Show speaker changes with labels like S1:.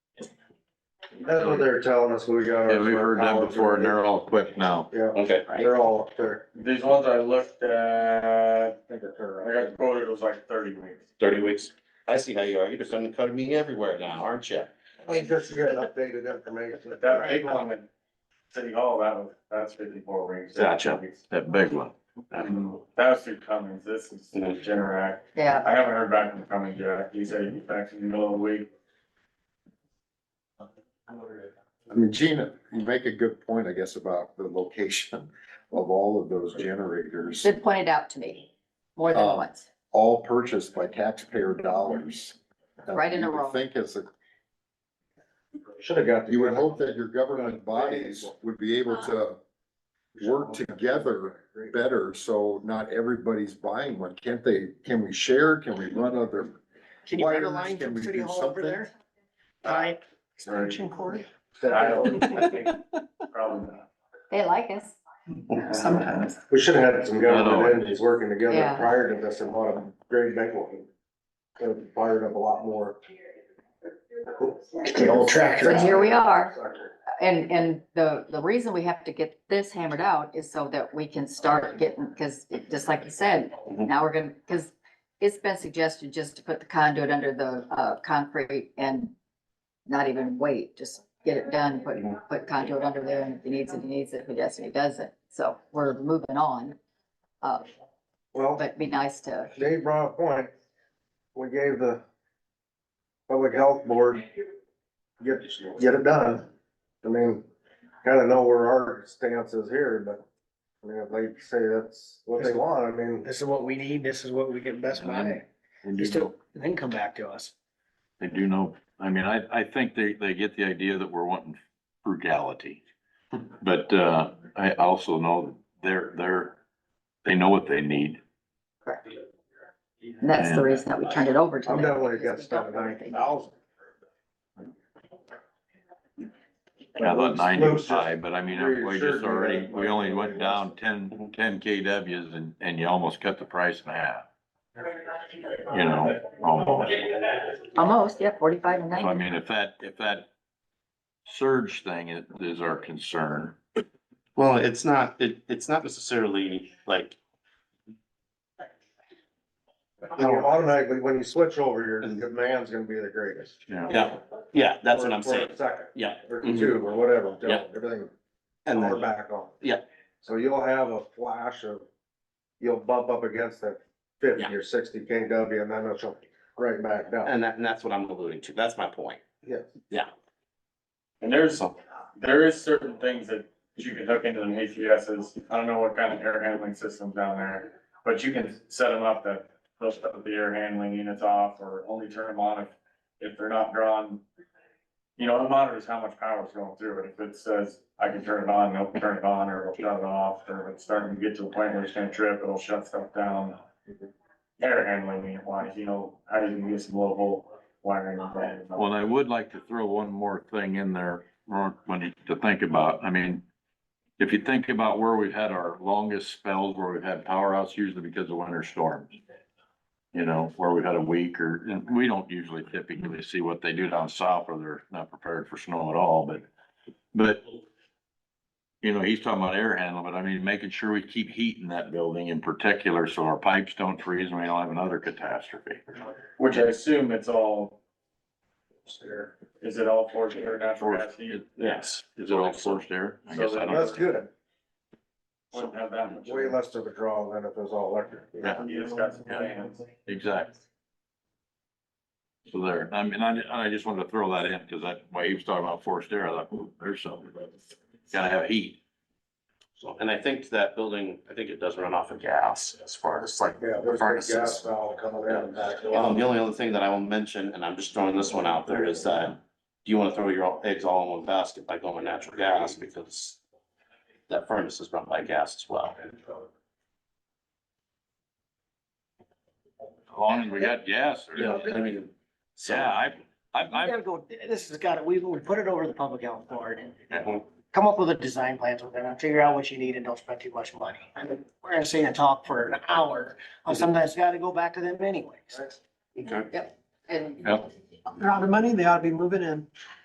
S1: That's what they're telling us, we got. our-
S2: Yeah, we've heard that before and they're all quit now.
S1: Yeah,
S3: Okay.
S1: they're all up there.
S4: These ones I looked at, I think I got quoted, it was like thirty weeks.
S3: Thirty weeks. I see how you are. You're just undercutting me everywhere now, aren't you?
S1: I mean, just to get updated information.
S4: But that big one in City Hall, that was, that's fifty-four weeks.
S3: Gotcha.
S2: That big one.
S4: Mm-hmm. That's through Cummings, this is Generac.
S5: Yeah,
S4: I haven't heard back from Cummings yet. He said he's back in the middle of the week.
S6: I mean, Gina, you make a good point, I guess, about the location of all of those generators,
S5: been pointed out to me more than
S6: Um,
S5: once.
S6: all purchased by taxpayer dollars.
S5: Right in a
S6: You would
S5: row.
S6: Think it's a,
S1: Should have got. the-
S6: you would hope that your government bodies would be able to work together better, so not everybody's buying one. Can't they, can we share? Can we run other?
S7: Can you run a
S6: wires?
S7: line
S6: Can
S7: from
S6: we
S7: City
S6: do
S7: Hall over
S6: something?
S7: there? By extension cord?
S4: I don't, I think, probably not.
S5: They like us.
S7: Sometimes.
S1: We should have had some
S2: I know.
S1: government entities working together
S5: Yeah.
S1: prior to this and bought a great big one. Could have fired up a lot more.
S7: The old tractor.
S5: So here we are. And, and the, the reason we have to get this hammered out is so that we can start getting, because just like you said,
S3: Mhm.
S5: now we're gonna, because it's been suggested just to put the conduit under the, uh, concrete and not even wait, just get it done, put, put conduit under there and if he needs it, he needs it, if he doesn't, he doesn't. So we're moving on. Uh,
S1: Well,
S5: but it'd be nice to,
S1: Dave brought a point. We gave the public health board, get, get it done. I mean, kinda know where our stance is here, but I mean, if they say that's what they want, I mean,
S7: This is what we need, this is what we can best buy. You still, then come back to us.
S2: They do know, I mean, I, I think they, they get the idea that we're wanting frugality. But, uh, I also know that they're, they're, they know what they need.
S5: and that's the reason that we turned it over to them.
S1: I'm definitely against
S5: because we
S1: that
S5: don't know
S1: nine
S5: anything.
S1: thousand.
S2: I thought ninety was high, but I mean, we just already, we only went down 10 10 KWs and, and you almost cut the price in half. You know, almost.
S5: Almost, yeah, forty-five and
S2: So I
S5: ninety.
S2: mean, if that, if that surge thing is, is our concern,
S3: Well, it's not, it, it's not necessarily like,
S1: You know, automatically, when you switch over, your demand's gonna be the greatest.
S2: you know.
S3: yeah, yeah, that's what
S1: Or-
S3: I'm
S1: or
S3: saying.
S1: Second,
S3: Yeah.
S1: or two, or whatever,
S3: Yeah.
S1: everything.
S3: And
S1: Or
S3: then,
S1: back on.
S3: Yeah.
S1: So you'll have a flash of, you'll bump up against that fifty
S3: Yeah.
S1: or sixty KW and then it'll right back down.
S3: and that, and that's what I'm alluding to. That's my point.
S1: Yes.
S4: And there's,
S3: So,
S4: there is certain things that you can hook into the ATSs. I don't know what kind of air handling system down there, but you can set them up that they'll shut the air handling units off or only turn them on if, if they're not drawn. You know, it monitors how much power is going through it. If it says, I can turn it on, it'll turn it on or it'll shut it off, or if it's starting to get to a point where it's gonna trip, it'll shut stuff down. Air handling unit wise, you know, how you can get some local wiring.
S2: Well, I would like to throw one more thing in there, Mark, when you, to think about, I mean, if you think about where we've had our longest spells, where we've had power outs usually because of winter storms. You know, where we've had a week or, and we don't usually typically see what they do down south where they're not prepared for snow at all, but, but you know, he's talking about air handling, but I mean, making sure we keep heat in that building in particular, so our pipes don't freeze and we don't have another catastrophe.
S4: Which I assume it's all. Is it all forced air, natural gas heat?
S3: yes.
S2: Is it all forced air? I guess I don't.
S1: That's good.
S4: Wouldn't have that much.
S1: Way less of a draw than if it was all electric.
S2: Yeah.
S4: You just got some fans.
S2: Exactly. So there, I mean, I, I just wanted to throw that in, cause that, why he was talking about forced air, I thought, ooh, there's something, gotta have heat.
S3: So, and I think that building, I think it does run off of gas as far as like
S1: Yeah, there's a
S3: Furnaces.
S1: gas valve coming in and back.
S3: Um, the only other thing that I will mention, and I'm just throwing this one out there, is that do you wanna throw your all- eggs all in one basket by going natural gas because that furnace is run by gas as well.
S2: As long as we got gas, or-
S3: Yeah, I mean, so.
S2: yeah, I, I,
S7: You
S2: I,
S7: gotta go, this has got to, we, we put it over to the public health board and
S3: Mhm.
S7: come up with a design plan, so then figure out what you need and don't spend too much money. I mean, we're gonna sit and talk for an hour, and sometimes gotta go back to them anyways.
S3: Okay.
S5: And
S2: yeah.
S7: They're out of money, they ought to be moving in.